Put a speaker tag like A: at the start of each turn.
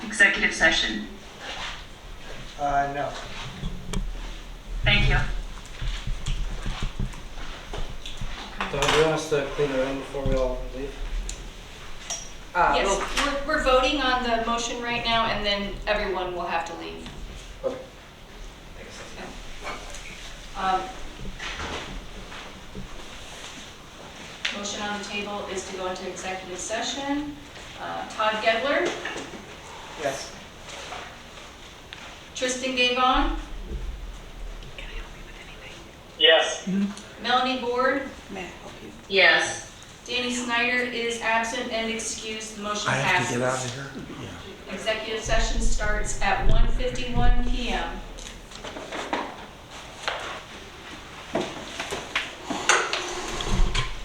A: executive session?
B: Uh, no.
A: Thank you.
B: Don, do you want us to clean the room before we all leave?
C: Uh,
D: Yes,
C: we'll-
D: we're, we're voting on the motion right now, and then everyone will have to leave.
B: Okay.
D: Um, Motion on the table is to go into executive session. Uh, Todd Gedler,
B: Yes.
D: Tristan Gavon,
B: Yes.
D: Hmm? Melanie Board,
C: Yes.
D: Danny Snyder is absent and excused, the motion
E: I have to
D: passes.
E: get out of here.
D: Executive session starts at 1:51 PM.